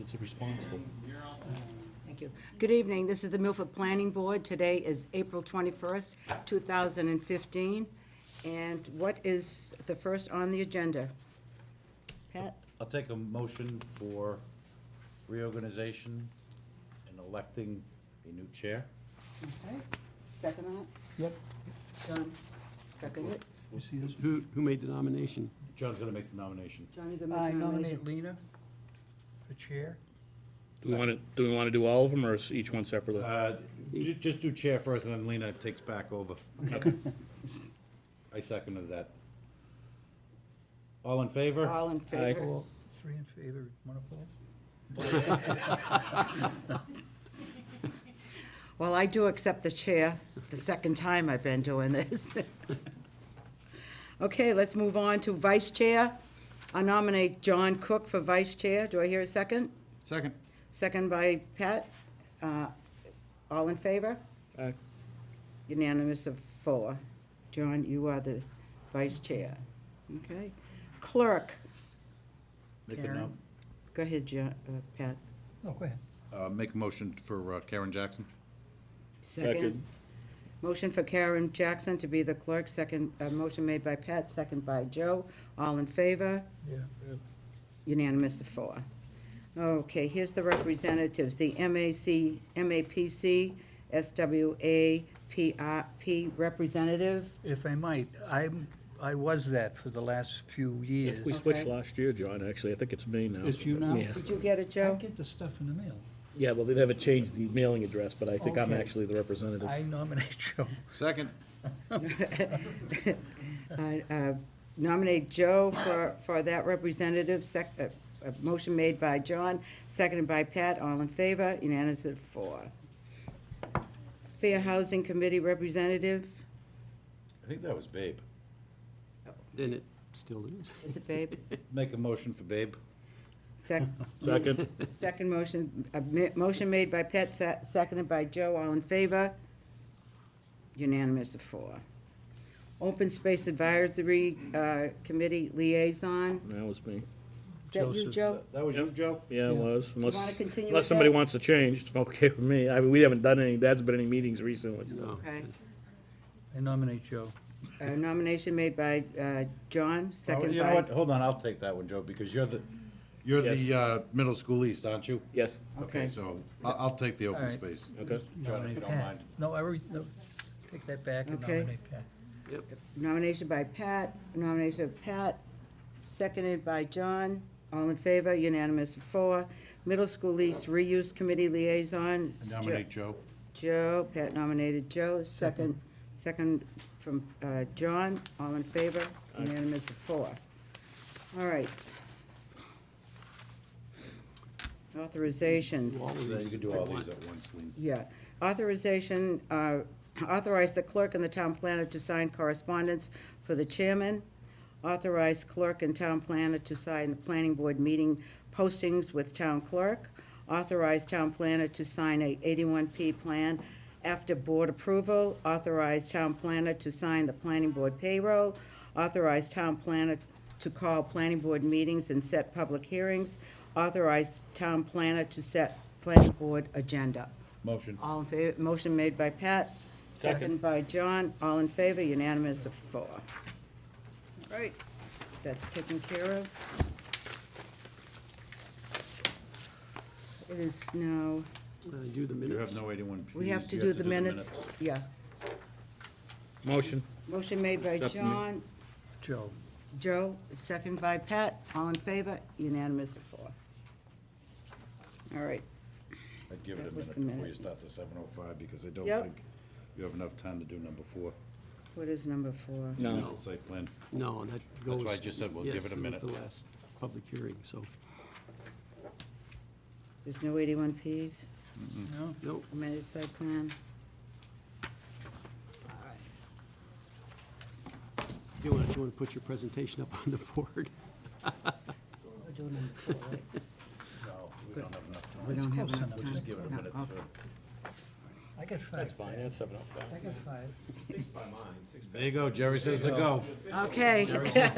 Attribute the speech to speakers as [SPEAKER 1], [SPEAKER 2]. [SPEAKER 1] it's responsible.
[SPEAKER 2] Thank you. Good evening. This is the Milford Planning Board. Today is April 21st, 2015. And what is the first on the agenda? Pat?
[SPEAKER 3] I'll take a motion for reorganization and electing a new chair.
[SPEAKER 2] Okay. Second on
[SPEAKER 4] Yep.
[SPEAKER 2] it? John? Second it?
[SPEAKER 5] Who, who made the nomination?
[SPEAKER 3] John's gonna make the nomination.
[SPEAKER 2] Johnny, the
[SPEAKER 4] I
[SPEAKER 2] make nomination.
[SPEAKER 4] nominate Lena for chair.
[SPEAKER 1] Do we want to, do we want to do all of them or is each one separately?
[SPEAKER 3] Uh, ju- Just do chair first, and then Lena takes back over.
[SPEAKER 1] Okay.
[SPEAKER 3] I seconded that. All in favor?
[SPEAKER 2] All in favor?
[SPEAKER 4] All three in favor, one opposed?
[SPEAKER 2] Well, I do accept the chair. It's the second time I've been doing this. Okay, let's move on to vice chair. I nominate John Cook for vice chair. Do I hear a second?
[SPEAKER 3] Second.
[SPEAKER 2] Second by Pat. Uh, All in favor?
[SPEAKER 1] Aye.
[SPEAKER 2] Unanimous of four. John, you are the vice chair. Okay. Clerk,
[SPEAKER 3] Make a,
[SPEAKER 4] Karen.
[SPEAKER 3] nom-
[SPEAKER 2] go ahead, Jo- uh, Pat.
[SPEAKER 4] No, go ahead.
[SPEAKER 3] uh, make a motion for uh, Karen Jackson.
[SPEAKER 1] Second.
[SPEAKER 2] Motion for Karen Jackson to be the clerk, second, uh, motion made by Pat, second by Joe. All in favor?
[SPEAKER 4] Yeah.
[SPEAKER 2] Unanimous of four. Okay, here's the representatives, the MAC, MAPC, SWA, PRP representative.
[SPEAKER 4] If I might, I'm, I was that for the last few years.
[SPEAKER 1] We switched
[SPEAKER 2] Okay.
[SPEAKER 1] last year, John, actually. I think it's me now.
[SPEAKER 6] It's you now?
[SPEAKER 1] Yeah.
[SPEAKER 2] Did you get it, Joe?
[SPEAKER 4] I get the stuff in the mail.
[SPEAKER 1] Yeah, well, they haven't changed the mailing address, but I think I'm
[SPEAKER 4] Okay.
[SPEAKER 1] actually the representative.
[SPEAKER 4] I nominate Joe.
[SPEAKER 3] Second.
[SPEAKER 2] I, uh, nominate Joe for, for that representative, sec, uh, uh, motion made by John, seconded by Pat, all in favor, unanimous of four. Fair Housing Committee Representative,
[SPEAKER 3] I think that was Babe.
[SPEAKER 5] Then it still is.
[SPEAKER 2] is it Babe?
[SPEAKER 3] Make a motion for Babe.
[SPEAKER 2] Sec,
[SPEAKER 1] Second.
[SPEAKER 2] second motion, uh, mi- motion made by Pat, se- seconded by Joe, all in favor, unanimous of four. Open Space Advisory, uh, Committee Liaison,
[SPEAKER 1] That was me.
[SPEAKER 2] is that you,
[SPEAKER 4] Joseph.
[SPEAKER 2] Joe?
[SPEAKER 3] That was you, Joe?
[SPEAKER 1] Yeah, it was. Unless,
[SPEAKER 2] wanna continue with
[SPEAKER 1] unless somebody
[SPEAKER 2] that?
[SPEAKER 1] wants to change, it's okay with me. I mean, we haven't done any, that's been any meetings recently, so.
[SPEAKER 5] No.
[SPEAKER 2] Okay.
[SPEAKER 4] I nominate Joe.
[SPEAKER 2] A Uh, nomination made by uh, John,
[SPEAKER 3] Oh,
[SPEAKER 2] second
[SPEAKER 3] You know
[SPEAKER 2] by,
[SPEAKER 3] what, hold on, I'll take that one, Joe, because you're the, you're the uh, middle school east, aren't you?
[SPEAKER 1] Yes.
[SPEAKER 2] Okay.
[SPEAKER 3] So I'll, I'll take the open
[SPEAKER 4] Alright.
[SPEAKER 3] space.
[SPEAKER 1] Okay.
[SPEAKER 3] John, if
[SPEAKER 4] Nominate
[SPEAKER 3] you don't
[SPEAKER 4] Pat.
[SPEAKER 3] mind.
[SPEAKER 4] No, I, re- no, take that back and
[SPEAKER 2] Okay.
[SPEAKER 4] nominate Pat.
[SPEAKER 2] nomination by Pat, nomination of Pat, seconded by John. All in favor, unanimous of four. Middle School East Reuse Committee Liaison, it's Jo-
[SPEAKER 3] Nominate Joe.
[SPEAKER 2] Joe, Pat nominated Joe, second, second from uh, John. All in favor, unanimous of four. All right. Authorizations.
[SPEAKER 3] Yeah, You can do all these at once, Lean.
[SPEAKER 2] Yeah. Authorization, uh, authorize the clerk and the town planner to sign correspondence for the chairman. Authorize clerk and town planner to sign the planning board meeting postings with town clerk. Authorize town planner to sign a 81P plan after board approval. Authorize town planner to sign the planning board payroll. Authorize town planner to call planning board meetings and set public hearings. Authorize town planner to set planning board agenda.
[SPEAKER 3] Motion.
[SPEAKER 2] All in favor, motion made by Pat, second by John, all in favor, unanimous of four. All right, that's taken care of. It is now,
[SPEAKER 5] I do the
[SPEAKER 3] You have
[SPEAKER 5] minutes.
[SPEAKER 3] no eighty-one Ps.
[SPEAKER 2] we have to
[SPEAKER 3] you
[SPEAKER 2] do the minutes. Yeah,
[SPEAKER 1] Motion.
[SPEAKER 2] motion made by
[SPEAKER 1] Accept me.
[SPEAKER 2] John,
[SPEAKER 4] Joe.
[SPEAKER 2] Joe, second by Pat, all in favor, unanimous of four. All right,
[SPEAKER 3] I'd give it
[SPEAKER 2] That
[SPEAKER 3] a
[SPEAKER 2] was
[SPEAKER 3] minute
[SPEAKER 2] the
[SPEAKER 3] before
[SPEAKER 2] minute.
[SPEAKER 3] you start the seven oh five, because I don't
[SPEAKER 2] Yep.
[SPEAKER 3] think you have enough time to do number four.
[SPEAKER 2] what is number four?
[SPEAKER 1] No.
[SPEAKER 3] The Site plan.
[SPEAKER 5] No, and that goes.
[SPEAKER 3] why I just said we'll give
[SPEAKER 5] yes,
[SPEAKER 3] it a
[SPEAKER 5] with
[SPEAKER 3] minute.
[SPEAKER 5] The last public hearing, so,
[SPEAKER 2] There's no eighty-one Ps,
[SPEAKER 4] No?
[SPEAKER 5] no,
[SPEAKER 2] amended site plan.
[SPEAKER 5] you want, you want to put your presentation up on the board?
[SPEAKER 2] We're doing number four, right?
[SPEAKER 3] No, we don't have enough
[SPEAKER 2] We
[SPEAKER 3] time.
[SPEAKER 2] don't have
[SPEAKER 4] close
[SPEAKER 2] enough
[SPEAKER 4] enough.
[SPEAKER 2] time.
[SPEAKER 3] Just give it a
[SPEAKER 2] No,
[SPEAKER 3] minute
[SPEAKER 2] okay.
[SPEAKER 3] to.
[SPEAKER 4] I got five.
[SPEAKER 1] That's fine, that's seven oh five.
[SPEAKER 4] I got five.
[SPEAKER 3] There you go, Jerry says to go.
[SPEAKER 2] Okay.